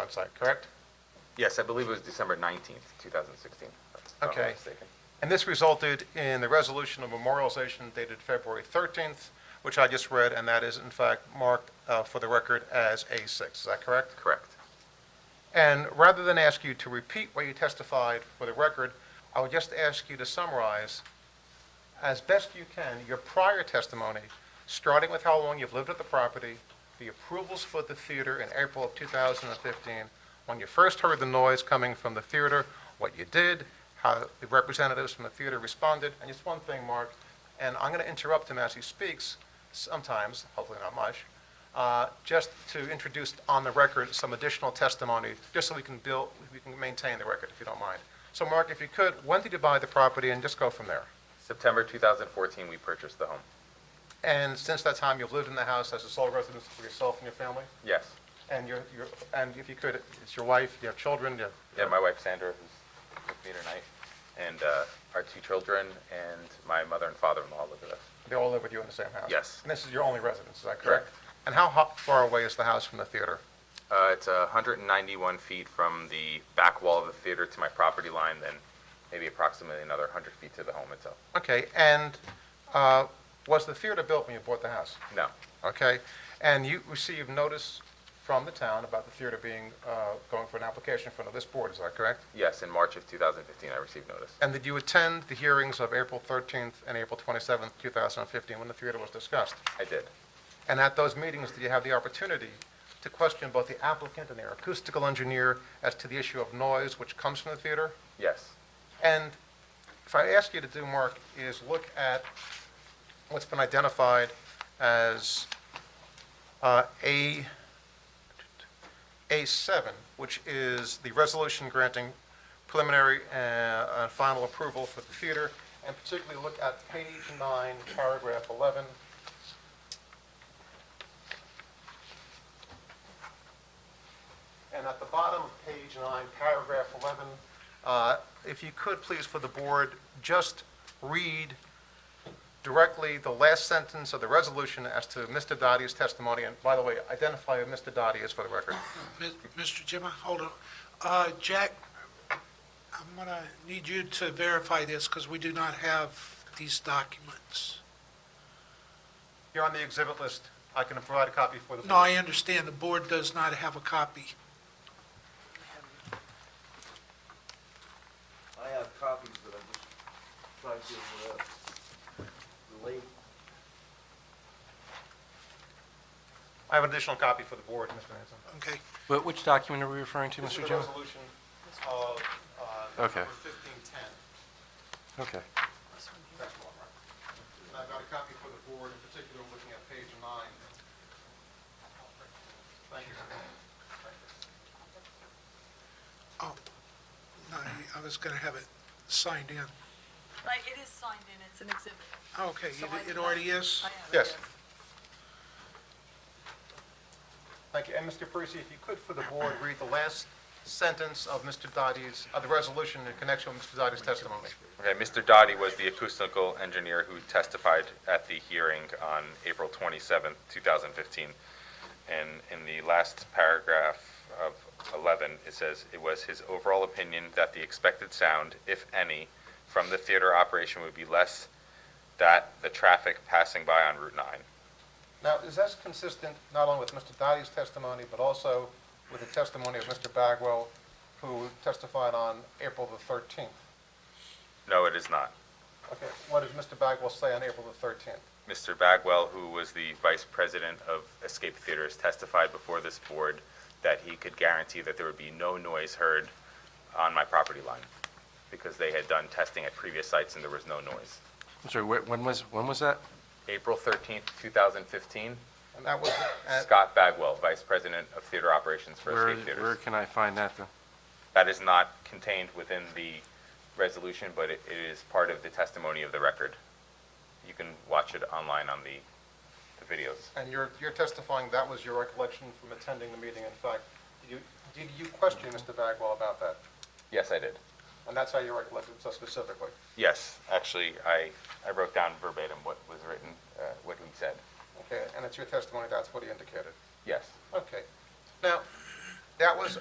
website, correct? Yes, I believe it was December 19th, 2016. if I'm not Okay. mistaken. And this resulted in the resolution of memorialization dated February 13th, which I just read, and that is in fact marked uh, for the record as A6, is that correct? Correct. And rather than ask you to repeat what you testified for the record, I would just ask you to summarize, as best you can, your prior testimony, starting with how long you've lived at the property, the approvals for the theater in April of 2015, when you first heard the noise coming from the theater, what you did, how the representatives from the theater responded, and just one thing, Mark, and I'm going to interrupt him as he speaks sometimes, hopefully not much, uh, just to introduce on the record some additional testimony, just so we can build, we can maintain the record, if you don't mind. So Mark, if you could, when did you buy the property, and just go from there? September 2014, we purchased the home. And since that time, you've lived in the house as a sole residence for yourself and your family? Yes. And your, your, and if you could, it's your wife, you have children, you have... Yeah, my wife Sandra, who's with me tonight, and uh, our two children, and my mother and father-in-law live with us. They all live with you in the same house? Yes. And this is your only residence, is that correct? Correct. And how ho- far away is the house from the theater? Uh, It's 191 feet from the back wall of the theater to my property line, then maybe approximately another 100 feet to the home itself. Okay, and uh, was the theater built when you bought the house? No, okay? And you received notice from the town about the theater being, uh, going for an application in front of this board, is that correct? yes, in March of 2015, I received notice. And did you attend the hearings of April 13th and April 27th, 2015, when the theater was discussed? I did. And at those meetings, did you have the opportunity to question both the applicant and their acoustical engineer as to the issue of noise which comes from the theater? Yes, And if I ask you to do, Mark, is look at what's been identified as uh, A, A7, which is the resolution granting preliminary uh, uh, final approval for the theater, and particularly look at page nine, paragraph 11. And at the bottom of page nine, paragraph 11, uh, if you could, please, for the board, just read directly the last sentence of the resolution as to Mr. Dottie's testimony. And by the way, identify who Mr. Dottie is for the record. Mi- Mr. Jim, hold on. Uh, Jack, I'm going to need you to verify this because we do not have these documents. You're on the exhibit list. I can provide a copy for the No, board. I understand the board does not have a copy. I have copies, but I'm just trying to uh, relate. I have an additional copy for the board, Mr. Hanson. Okay. Wh- Which document are we referring to, This Mr. is the Jim? resolution of uh, Okay. number 1510. Okay. That's one, right? And I've got a copy for the board, in particular, looking at page nine. Thank you. Oh, no, I- I was going to have it signed in. Like, it is signed in, it's an exhibit. Okay, So it- I did it that. already is? I have it, Yes. Thank you. And Mr. Parisi, if you could, for the board, read the last sentence of Mr. Dottie's, of the resolution in connection with Mr. Dottie's testimony. Okay, Mr. Dotty was the acoustical engineer who testified at the hearing on April 27th, 2015. And in the last paragraph of 11, it says, "It was his overall opinion that the expected sound, if any, from the theater operation would be less that the traffic passing by on Route 9." Now, is that consistent not only with Mr. Dottie's testimony, but also with the testimony of Mr. Bagwell, who testified on April the 13th? No, it is not. Okay, what did Mr. Bagwell say on April the 13th? Mr. Bagwell, who was the vice president of Escape Theaters, testified before this board that he could guarantee that there would be no noise heard on my property line because they had done testing at previous sites and there was no noise. I'm sorry, wh- when was, when was that? April 13th, 2015, And that was at Scott Bagwell, vice president of theater operations for Where, Escape where Theaters. can I find that, then? That is not contained within the resolution, but it it is part of the testimony of the record. You can watch it online on the the videos. And you're, you're testifying that was your recollection from attending the meeting, in fact. You, did you question Mr. Bagwell about that? Yes, I did. And that's how you recollected so specifically? Yes, actually, I, I wrote down verbatim what was written, uh, what he said. Okay, and it's your testimony, that's what he indicated? Yes. Okay. Now, that was